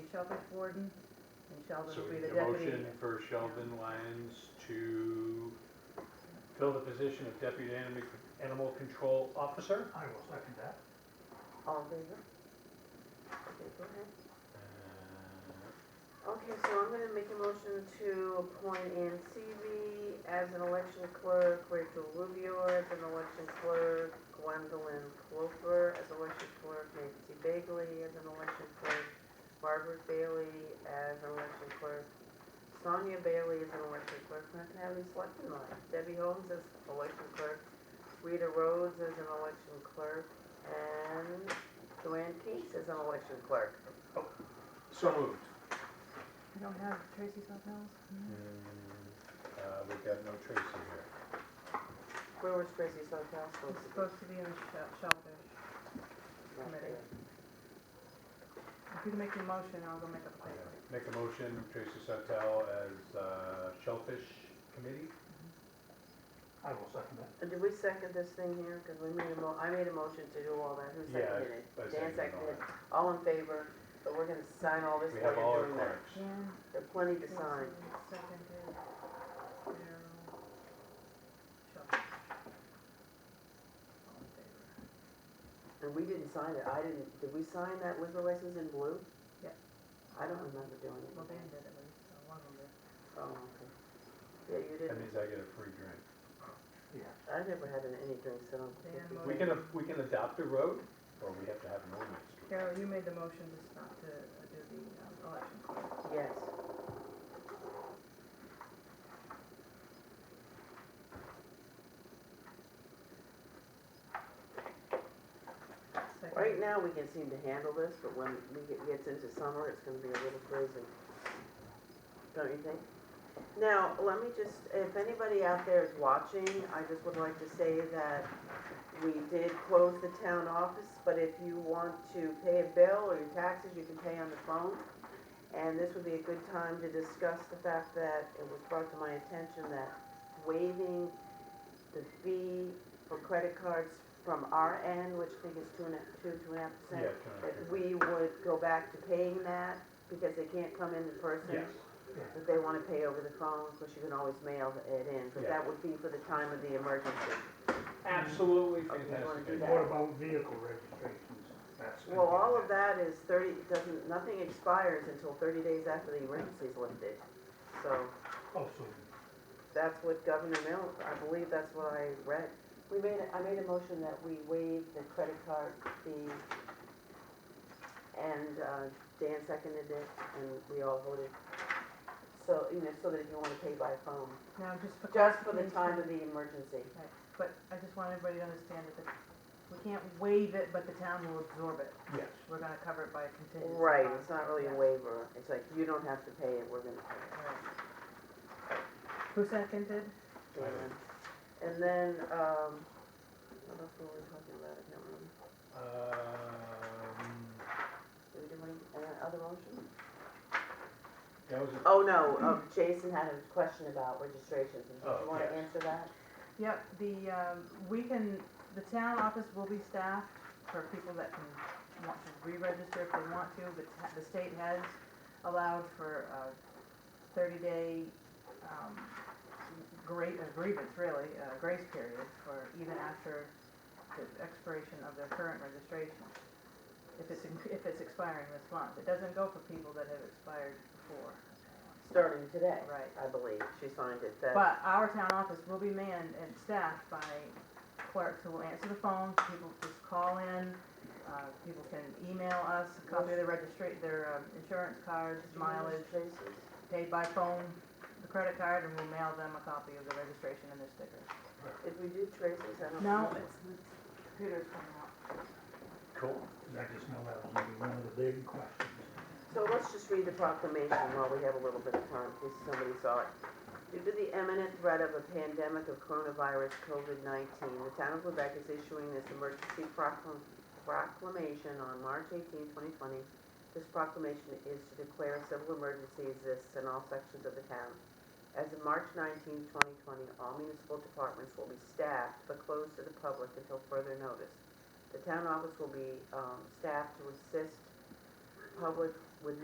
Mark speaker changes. Speaker 1: Shellfish Warden, and Shellfish
Speaker 2: So
Speaker 1: will be the
Speaker 2: the
Speaker 1: deputy.
Speaker 2: motion for Sheldon Lyons to fill the position of deputy animal, animal control officer.
Speaker 3: I will second that.
Speaker 4: All in favor? Okay, go ahead.
Speaker 2: Uh,
Speaker 4: Okay, so I'm gonna make a motion to appoint Ann Seavey as an election clerk, Rachel Rubio as an election clerk, Gwendolyn Cloper as election clerk, Nancy Bagley as an election clerk, Margaret Bailey as an election clerk, Sonia Bailey as an election clerk, not to have any selectmen on it, Debbie Holmes as election clerk, Rita Rhodes as an election clerk, and Joanne Case as an election clerk.
Speaker 2: So moved. Mm,
Speaker 1: I don't have Tracy's on those.
Speaker 2: Uh, we got no Tracy here.
Speaker 4: Where was Tracy's hotel supposed
Speaker 1: It's
Speaker 4: to be?
Speaker 1: supposed to be in the Shell- Shellfish Committee. If you can make your motion, I'll go make a plan.
Speaker 2: Make a motion, Tracy Suttel as uh, Shellfish Committee.
Speaker 3: I will second that.
Speaker 4: Uh, Did we second this thing here? Because we made a mo, I made a motion to do all that. Who
Speaker 2: Yeah,
Speaker 4: seconded it?
Speaker 2: I
Speaker 4: Dan
Speaker 2: second that.
Speaker 4: seconded it. All in favor, but we're gonna sign all this
Speaker 2: We
Speaker 4: while
Speaker 2: have all
Speaker 4: you're
Speaker 2: our
Speaker 4: doing that.
Speaker 2: clerks.
Speaker 1: Jan,
Speaker 4: There are plenty to
Speaker 1: Tracy,
Speaker 4: sign.
Speaker 1: seconded, Daryl, Shellfish. All in favor.
Speaker 4: And we didn't sign it. I didn't, did we sign that liquor license in blue?
Speaker 1: Yeah.
Speaker 4: I don't remember doing it.
Speaker 1: Well, Dan did at least, so one of them did.
Speaker 4: Oh, okay. Yeah, you
Speaker 2: That
Speaker 4: didn't.
Speaker 2: means I get a free drink.
Speaker 3: Yeah.
Speaker 4: I've never had an- any drinks, so I don't think
Speaker 1: Dan
Speaker 4: we
Speaker 2: We
Speaker 1: voted.
Speaker 2: can, we can adopt a road, or we have to have an ordinance. to
Speaker 1: Carol, you made the motion to stop to uh, do the um, election clerk.
Speaker 4: Yes.
Speaker 1: Second.
Speaker 4: Right now, we can seem to handle this, but when we get, gets into summer, it's gonna be a little crazy. Don't you think? Now, let me just, if anybody out there is watching, I just would like to say that we did close the town office, but if you want to pay a bill or your taxes, you can pay on the phone. And this would be a good time to discuss the fact that it was brought to my attention that waiving the fee for credit cards from our end, which I think is two and a, two, two and a half
Speaker 2: Yeah,
Speaker 4: percent,
Speaker 2: can I-
Speaker 4: that we would go back to paying that because they can't come in in person
Speaker 2: Yes,
Speaker 4: that they want to pay over the phone, because you can always mail it in, but that would be for the time of the emergency.
Speaker 2: absolutely
Speaker 4: Okay, you wanna
Speaker 2: fantastic.
Speaker 4: do
Speaker 3: And
Speaker 2: idea.
Speaker 4: that?
Speaker 3: what about vehicle registrations? That's
Speaker 4: Well, all
Speaker 3: gonna
Speaker 4: of that is thirty, doesn't, nothing expires until thirty days after the emergency is lifted. So
Speaker 3: be- Oh, so
Speaker 4: that's what Governor Mill, I believe that's what I read. We made, a- I made a motion that we waive the credit card fee, and uh, Dan seconded it, and we all voted. So, you know, so that if you want to pay by phone,
Speaker 1: Now, just for.
Speaker 4: just for the
Speaker 1: clarification-
Speaker 4: time of the emergency.
Speaker 1: Right, But I just want everybody to understand that the- we can't waive it, but the town will absorb it.
Speaker 2: Yes.
Speaker 1: We're gonna cover it by a contingency.
Speaker 4: Right,
Speaker 1: bond.
Speaker 4: it's not really a
Speaker 1: Yeah.
Speaker 4: waiver, it's like, you don't have to pay it, we're gonna pay it.
Speaker 1: Right. Who seconded?
Speaker 4: Dan. And then, um, what else were we talking about, I can't remember,
Speaker 2: Uh, Um,
Speaker 4: did we do any, any other motion?
Speaker 2: That was, a-
Speaker 4: Oh, no, um, Jason had a question about registrations, and did
Speaker 2: Oh,
Speaker 4: you wanna
Speaker 2: yes.
Speaker 4: answer that?
Speaker 1: Yep, the, um, we can, the town office will be staffed for people that can, want to re-register if they want to. The, ta- the state has allowed for a thirty-day, um, great, uh, grievance really, uh, grace period for even after the expiration of their current registration. If it's, in- if it's expiring this month, it doesn't go for people that have expired before.
Speaker 4: Starting today,
Speaker 1: Right.
Speaker 4: I believe, she signed it, that,
Speaker 1: But our town office will be manned and staffed by clerks who will answer the phone, people just call in, uh, people can email us, a copy of their registry, their um, insurance cards, mileage,
Speaker 4: Registrations.
Speaker 1: paid by phone, the credit card, and we'll mail them a copy of the registration and their sticker.
Speaker 4: Did we do Tracy's, I don't
Speaker 1: No,
Speaker 4: know.
Speaker 1: it's, the computer's coming out.
Speaker 2: cool.
Speaker 3: I just know that was gonna be one of the big questions.
Speaker 4: So let's just read the proclamation while we have a little bit of time, in case somebody saw it. Due to the imminent threat of a pandemic of coronavirus COVID-19, the town of Quebec is issuing this emergency proclam- proclamation on March 18, 2020. This proclamation is to declare a civil emergency exists in all sections of the town. As of March 19, 2020, all municipal departments will be staffed but closed to the public until further notice. The town office will be um, staffed to assist public